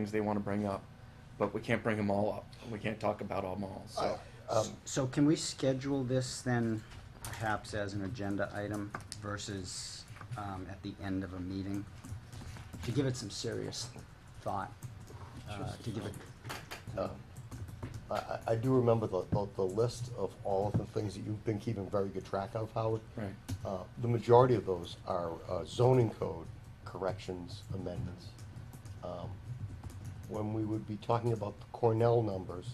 things they want to bring up, but we can't bring them all up. We can't talk about them all, so. Um, So can we schedule this then perhaps as an agenda item versus um, at the end of a meeting? To give it some serious thought, uh, to give it, um, I, I, I do remember the, the, the list of all of the things that you've been keeping very good track of, Howard. Right. Uh, the majority of those are uh, zoning code corrections, amendments. Um, When we would be talking about the Cornell numbers,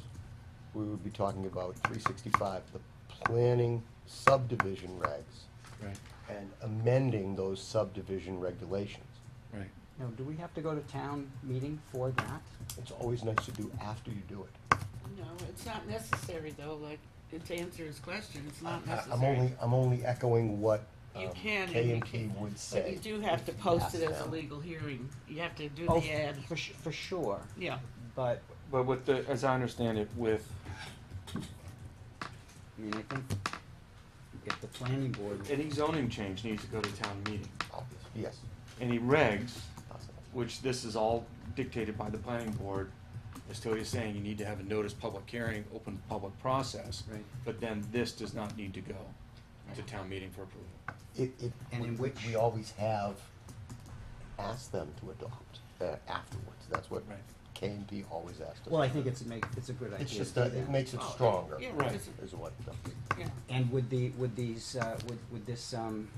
we would be talking about three sixty-five, the planning subdivision regs, Right, and amending those subdivision regulations. right. no, do we have to go to town meeting for that? It's always nice to do after you do it. No, it's not necessary though, like, to answer his question, it's not I- necessary. I'm only, I'm only echoing what You um, can. K and if you P can, would say. But you do have to post it as Yes. a legal hearing. You have to do Oh, the ad. For, su- for sure, Yeah, but, But with the, as I understand it, with, I mean, I think if the planning board, any zoning change needs to go to town meeting. Obvious- Yes, Any regs, possible. which this is all dictated by the planning board, as Tony's saying, you need to have a notice public hearing, open public process. Right. But then this does not need to go to town meeting for approval. It, it, And we- in we- which- we always have asked them to adopt uh, afterwards. That's what Right. K and P always asked us. well, I to think do. it's make, it's a good idea. It's to just, do a- it that. makes it Oh, stronger, yeah, Right. it's- is what, it does. yeah. And would the, would these, uh, would, would this, um,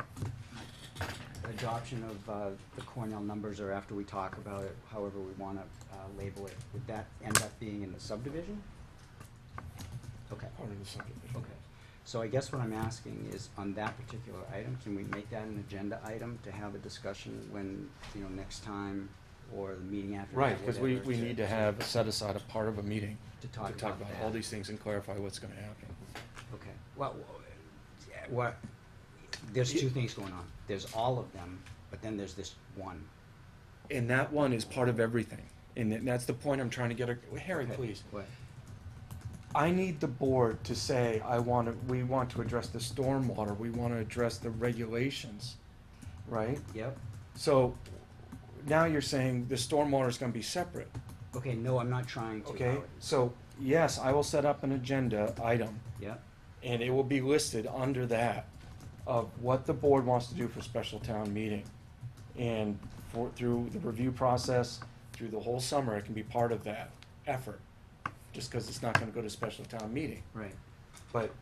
adoption of, uh, the Cornell numbers or after we talk about it, however we wanna, uh, label it, would that end up being in the subdivision? Okay, Part of the subdivision. okay. So I guess what I'm asking is, on that particular item, can we make that an agenda item to have a discussion when, you know, next time or the meeting after that, Right, because we, whatever, we need to have set aside a part of a meeting To to talk talk about about all that. these things and clarify what's gonna happen. Okay, well, w- yeah, what, there's two things going on. There's all of them, but then there's this one. And that one is part of everything. And that- that's the point I'm trying to get, ac- Harry, Okay, please. What? I need the board to say, I want to, we want to address the stormwater, we want to address the regulations, right? Yep. So now you're saying the stormwater is gonna be separate, Okay, no, I'm not trying to. okay? Howard. So, yes, I will set up an agenda item Yep, and it will be listed under that of what the board wants to do for special town meeting. And for, through the review process, through the whole summer, it can be part of that effort, just because it's not gonna go to special town meeting. right. But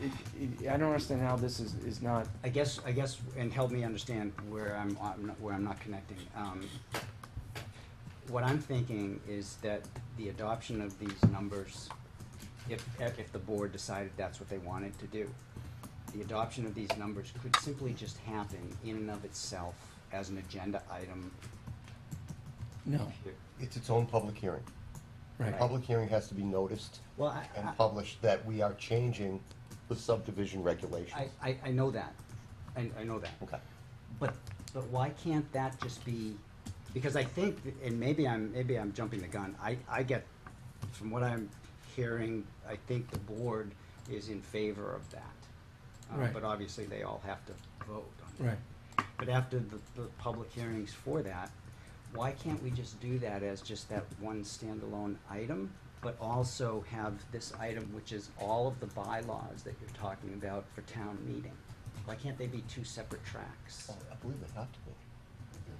it, it, I don't understand how this is, is not, I guess, I guess, and help me understand where I'm, I'm not- where I'm not connecting. Um, What I'm thinking is that the adoption of these numbers, if, if the board decided that's what they wanted to do, the adoption of these numbers could simply just happen in and of itself as an agenda item. no, here. It's its own public hearing. right, Public hearing has to be noticed Well, I, and I- published that we are changing the subdivision I, regulations. I, I know that. I, I know that. Okay. But, but why can't that just be, because I think, and maybe I'm, maybe I'm jumping the gun, I, I get, from what I'm hearing, I think the board is in favor of that. Uh, Right. But obviously, they all have to vote on it. right. But after the, the public hearings for that, why can't we just do that as just that one standalone item? But also have this item, which is all of the bylaws that you're talking about for town meeting? Why can't they be two separate tracks? Well, I believe they have to be.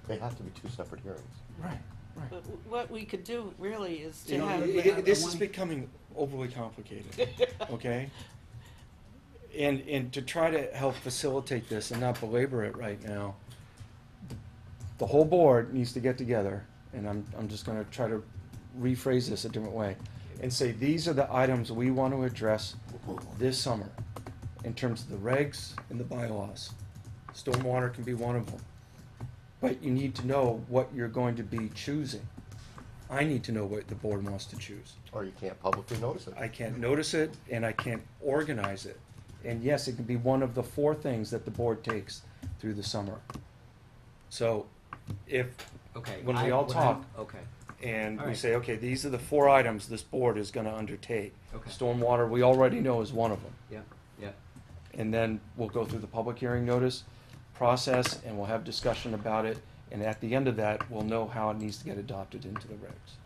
They have to be two separate hearings. Right, right. But w- what we could do really is You to know, have. it- I- I it- this is wanna- becoming overly complicated, okay? And, and to try to help facilitate this and not belabor it right now, the whole board needs to get together, and I'm, I'm just gonna try to rephrase this a different way, and say, these are the items we want to address this summer, in terms of the regs and the bylaws. Stormwater can be one of them. But you need to know what you're going to be choosing. I need to know what the board wants to choose. Or you can't publicly notice it. I can't notice it and I can't organize it. And yes, it can be one of the four things that the board takes through the summer. So if, Okay. When we I- all what I'm- talk. Okay, and we Alright. say, okay, these are the four items this board is gonna undertake. Okay. Stormwater, we already know is one of them. yeah, yeah, And then we'll go through the public hearing notice process and we'll have discussion about it. And at the end of that, we'll know how it needs to get adopted into the regs.